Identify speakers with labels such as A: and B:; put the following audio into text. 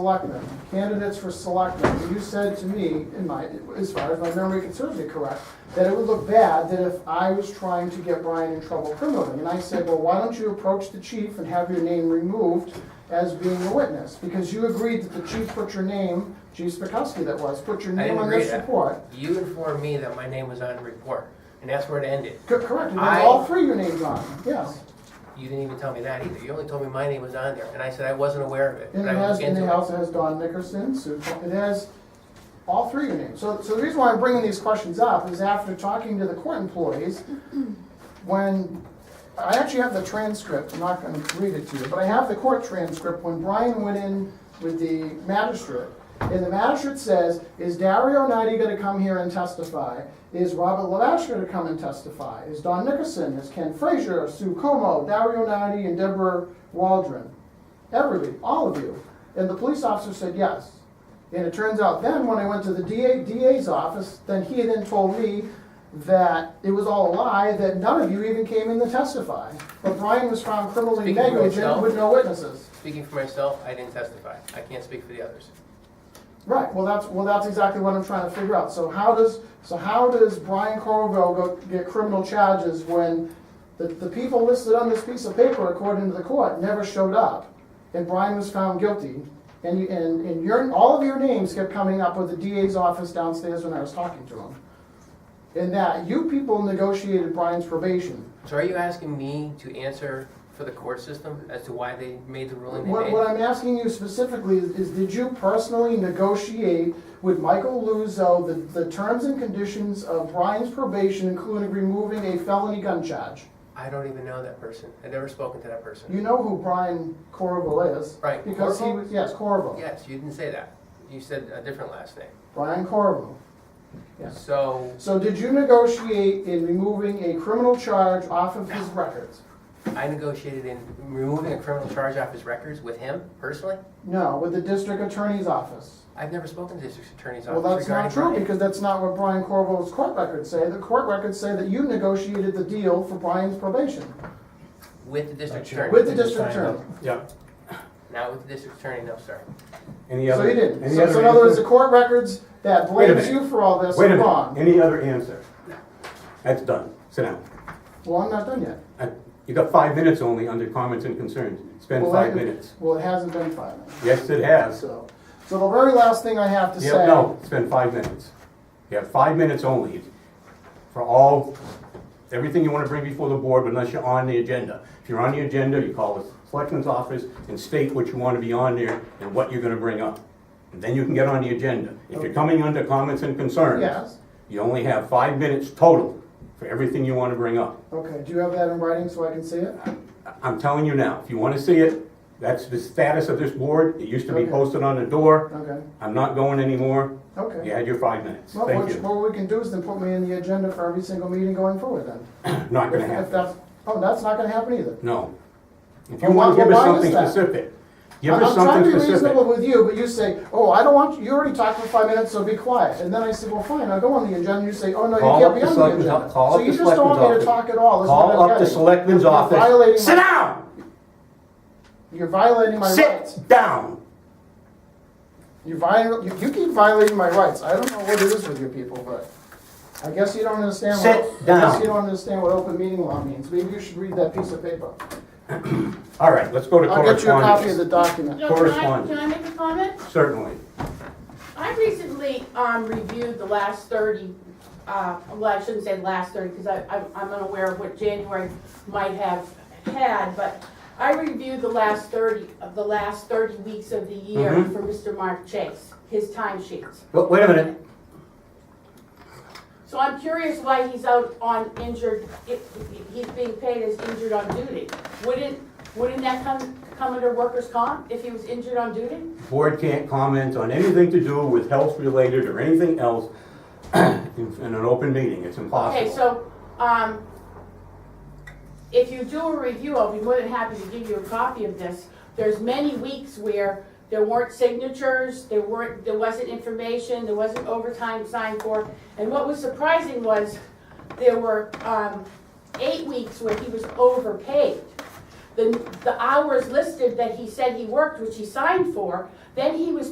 A: selectmen, candidates for selectmen, you said to me, in my, as far as my memory can serve me correct, that it would look bad that if I was trying to get Brian in trouble criminally. And I said, well, why don't you approach the chief and have your name removed as being a witness? Because you agreed that the chief put your name, Chief Spakowski that was, put your
B: I
A: name
B: didn't
A: on
B: agree
A: this
B: to that.
A: report.
B: You informed me that my name was on the report, and that's where it ended.
A: Co- Correct, and
B: I-
A: there's all three your names on, yes.
B: You didn't even tell me that either. You only told me my name was on there, and I said I wasn't aware of it.
A: And it
B: but I will
A: has,
B: look
A: and it
B: into it.
A: also has Don Nickerson, Sue, Col- it has all three of your names. So, so the reason why I'm bringing these questions up is after talking to the court employees, when, I actually have the transcript, I'm not gonna read it to you, but I have the court transcript when Brian went in with the magistrate. And the magistrate says, is Dario Knighty gonna come here and testify? Is Robert Lavash gonna come and testify? Is Don Nickerson, is Ken Frazier, Sue Como, Dario Knighty, and Deborah Waldron? Everybody, all of you. And the police officer said yes. And it turns out then, when I went to the DA, DA's office, then he then told me that it was all a lie, that none of you even came in to testify. But Brian was found criminally
B: Speaking for
A: negligent
B: yourself.
A: with no witnesses.
B: Speaking for myself, I didn't testify. I can't speak for the others.
A: Right, well, that's, well, that's exactly what I'm trying to figure out. So how does, so how does Brian Corvo go get criminal charges when the, the people listed on this piece of paper, according to the court, never showed up? And Brian was found guilty, and, you- and, and your, all of your names kept coming up with the DA's office downstairs when I was talking to him. And that you people negotiated Brian's probation.
B: So are you asking me to answer for the court system as to why they made the ruling they
A: What,
B: made?
A: what I'm asking you specifically is, is did you personally negotiate with Michael Luzo the, the terms and conditions of Brian's probation, including removing a felony gun charge?
B: I don't even know that person. I've never spoken to that person.
A: You know who Brian Corvo is.
B: Right,
A: Because he
B: Corvo?
A: was, yes, Corvo.
B: Yes, you didn't say that. You said a different last name.
A: Brian Corvo. Yes.
B: So
A: So did you negotiate in removing a criminal charge off of his records?
B: I negotiated in removing a criminal charge off his records with him personally?
A: No, with the district attorney's office.
B: I've never spoken to the district attorney's
A: Well,
B: office
A: that's not
B: regarding my
A: true,
B: name.
A: because that's not what Brian Corvo's court records say. The court records say that you negotiated the deal for Brian's probation.
B: With the district attorney.
A: With the district attorney.
C: Yeah.
B: Not with the district attorney, no, sir.
C: Any
A: So
C: other?
A: you didn't.
C: any
A: So
C: other
A: so in other words, the
C: answer?
A: court records that
C: Wait a
A: blames
C: minute.
A: you for all this
C: Wait a
A: are
C: minute,
A: wrong.
C: any other answer? That's done, sit down.
A: Well, I'm not done yet.
C: Uh, You got five minutes only under comments and concerns, spend
A: Well,
C: five
A: that-
C: minutes.
A: Well, it hasn't been five minutes.
C: Yes, it has.
A: So, so the very last thing I have to say.
C: Yeah, no, spend five minutes. You have five minutes only for all, everything you wanna bring before the board unless you're on the agenda. If you're on the agenda, you call the selectman's office and state what you wanna be on there and what you're gonna bring up. And then you can get on the agenda. If you're coming under comments and concerns.
A: Yes,
C: You only have five minutes total for everything you want to bring up.
A: okay, do you have that in writing so I can see it?
C: I- I'm telling you now, if you want to see it, that's the status of this board. It used to be
A: Okay.
C: posted on the door.
A: Okay,
C: I'm not going anymore.
A: okay.
C: You had your five minutes.
A: Well,
C: Thank
A: what-
C: you.
A: What we can do is then put me in the agenda for every single meeting going forward then.
C: Not going
A: If-
C: to
A: if
C: happen.
A: that's- Oh, that's not gonna happen either.
C: No. If you
A: Well,
C: want
A: why-
C: to give us
A: well, why
C: something
A: is that?
C: specific, give
A: I'm
C: us
A: I'm trying
C: something
A: to be reasonable
C: specific.
A: with you, but you say, oh, I don't want, you You already talked for five minutes, so be quiet. And then I said, well, fine, I'll go on the agenda. You say, oh, no,
C: Call
A: you can't
C: up
A: be
C: the
A: on the
C: selectmen's
A: agenda.
C: o- call
A: So
C: up
A: you
C: the
A: just don't want me to
C: selectmen's
A: talk at all. is what
C: Call
A: I'm
C: up the
A: getting.
C: selectman's
A: You're
C: office.
A: violating
C: Sit
A: my-
C: down!
A: You're violating my rights.
C: Sit down!
A: You viol, you, you keep violating my rights. I don't know what it is with you people, but I guess you don't understand what.
C: Sit
A: I guess
C: down.
A: you don't understand what open meeting law means. Maybe you should read that piece of paper.
C: All right, let's go to
A: I'll get you a copy of the
C: correspondence.
A: document.
D: No, can I-
C: Correspondence.
D: Can I make a comment?
C: Certainly.
D: I recently, um, reviewed the last thirty, uh, well, I shouldn't say last thirty, because I, I'm- I'm unaware of what January might have had, but I reviewed the last thirty, of the last thirty weeks of the year
C: Mhm.
D: for Mr. Mark Chase, his time sheets.
C: But wait a minute.
D: So I'm curious why he's out on injured, if- if he's being paid as injured on duty. Wouldn't, wouldn't that come, come under workers' comp if he was injured on duty?
C: board can't comment on anything to do with health related or anything else in in an open meeting, it's impossible.
D: Okay, so, um, if you do a review, I'll be more than happy to give you a copy of this. There's many weeks where there weren't signatures, there weren't, there wasn't information, there wasn't overtime signed for. And what was surprising was there were, um, eight weeks where he was overpaid. the, the hours listed that he said he worked, which he signed for, then he was